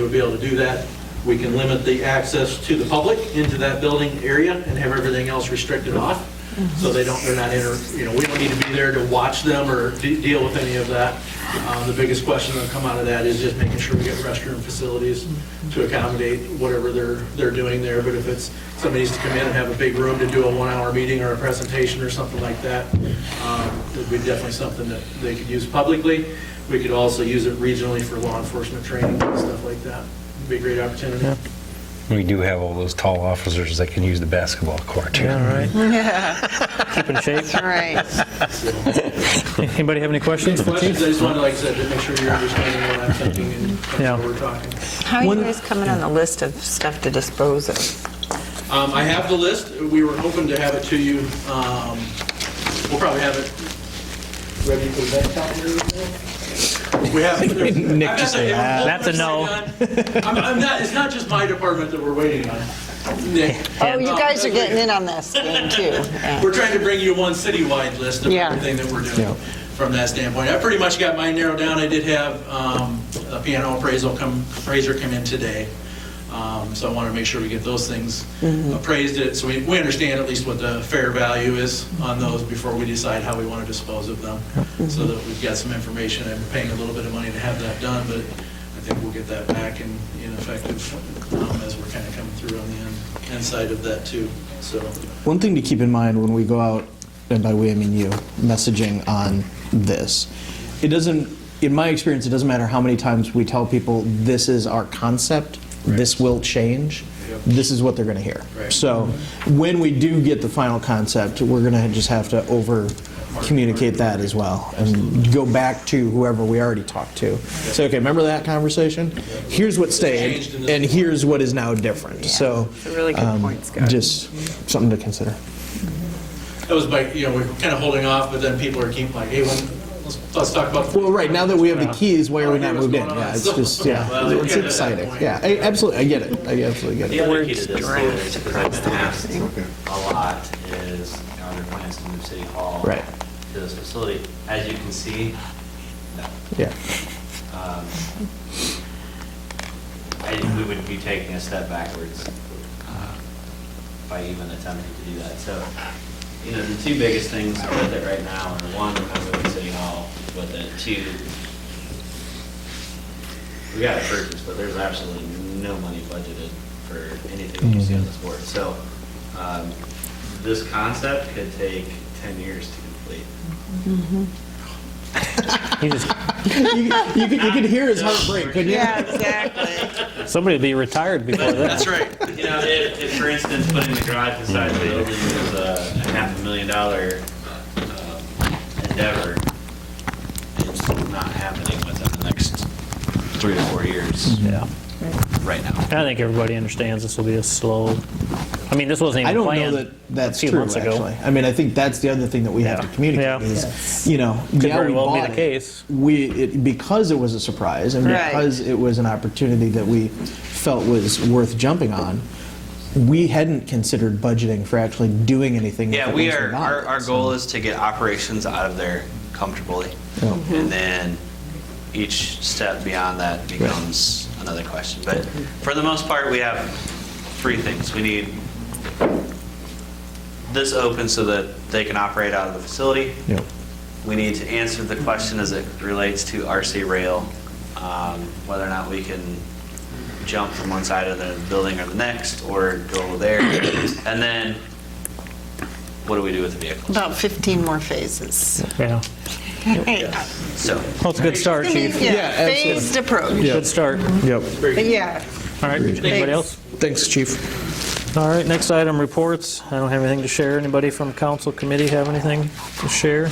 would be able to do that. We can limit the access to the public into that building area and have everything else restricted off. So they don't, they're not inter, you know, we don't need to be there to watch them or de- deal with any of that. Um, The biggest question that'll come out of that is just making sure we get restroom facilities to accommodate whatever they're, they're doing there. But if it's, somebody needs to come in and have a big room to do a one-hour meeting or a presentation or something like that, um, it'd be definitely something that they could use publicly. We could also use it regionally for law enforcement training and stuff like that. It'd be a great opportunity. We do have all those tall officers that can use the basketball court. Yeah, all right. Yeah, Keep in shape. all right. Anybody have any questions for the Questions, chief? I just wanted, like I said, to make sure you're understanding what I'm thinking and Yeah. that's what we're talking. How are you One- guys coming on the list of stuff to dispose of? Um, I have the list. We were hoping to have it to you. um, We'll probably have it ready for the next calendar. We have. Nick I've got just the- said, "Ah, I'm that's a no." almost done. I'm I'm not, it's not just my department that we're waiting on, Nick. Oh, you guys are getting in on this thing too. Yeah. We're trying to bring you one citywide list of Yeah. everything that we're doing from that standpoint. I pretty much got mine narrowed down. I did have um, a piano appraisal come, appraiser come in today. Um, So I want to make sure we get those things Mm-hmm. appraised, it so we, we understand at least what the fair value is on those before we decide how we want to dispose of them, so that we've got some information. I'm paying a little bit of money to have that done, but I think we'll get that back and in effective um, as we're kind of coming through on the end- inside of that too, so. One thing to keep in mind when we go out, and by we I mean you, messaging on this, it doesn't, in my experience, it doesn't matter how many times we tell people this is our concept, this will change, Yep. this is what they're going to hear. Right. So when we do get the final concept, we're going to just have to over communicate that as well and go back to whoever we already talked to. Say, okay, remember that conversation? Here's what Changed in stayed, this one. and here's what is now different. So, Really good um, point, Scott. just something to consider. That was by, you know, we we're kind of holding off, but then people are keeping like, hey, when- let's, let's talk about. Well, right, now that we have the keys, why are we Yeah. not moved in? What's going Yeah, on? it's just, yeah, Well, you it's get it at that exciting. point. Yeah, I- absolutely, I get it, I absolutely get The it. other key to this too is, because I've been asked a lot, is, you know, are there plans to move City Hall? Right. To this facility? As you can see, Yeah, um, I, we would be taking a step backwards um, by even attempting to do that. So, you know, the two biggest things with it right now are, one, I'm moving City Hall with it, two, we got to purchase, but there's absolutely no money budgeted for anything that you see on this board. So, um, this concept could take 10 years to complete. He just- you you could, you could hear his heart break, couldn't you? exactly. Somebody will be retired before that. That's right. You know, if, if for instance, putting the garage inside the building was a a half a million dollar um, endeavor, it's not happening within the next three to four years. Yeah. Right now. I think everybody understands this will be a slow, I mean, this wasn't I even don't know planned that a that's few true, months ago. actually. I mean, I think that's the other thing that we have to Yeah. communicate Yeah. is, you know, yeah, very we well be bought the it. case. We, it- because it was a surprise and Right. because it was an opportunity that we felt was worth jumping on, we hadn't considered budgeting for actually doing anything. with Yeah, it we once are, got our, it, our so. goal is to get operations out of there comfortably. And then each step beyond that becomes another question. But for the most part, we have three things. We need this open so that they can operate out of the facility. Yep. We need to answer the question as it relates to RC rail, um, whether or not we can jump from one side of the building or the next, or go over there. And then, what do we do with the vehicles? About 15 more phases. Yeah, So, well, it's a good start, chief. Yeah, Yeah, absolutely. phased approach. Good start. Yep. But Yeah. All right, anybody else? Thanks, Chief. All right, next item, reports. I don't have anything to share. Anybody from council committee have anything to share?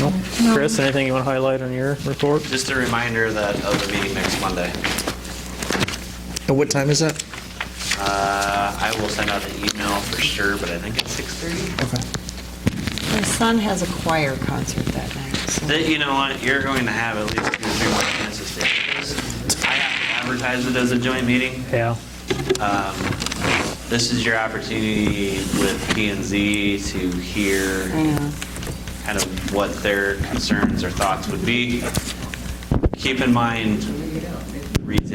Nope. Chris, anything you want to highlight on your report? just a reminder that of the meeting next Monday. And what time is that? Uh, I will send out an email for sure, but I think it's 6:30. Okay. My son has a choir concert that night. so- That, you know what, you're going to have at least two or three more chances to do this. I have to advertise it as a joint meeting. Yeah, This is your opportunity with P and Z to hear Yeah. kind of what their concerns or thoughts would be. Keep in mind,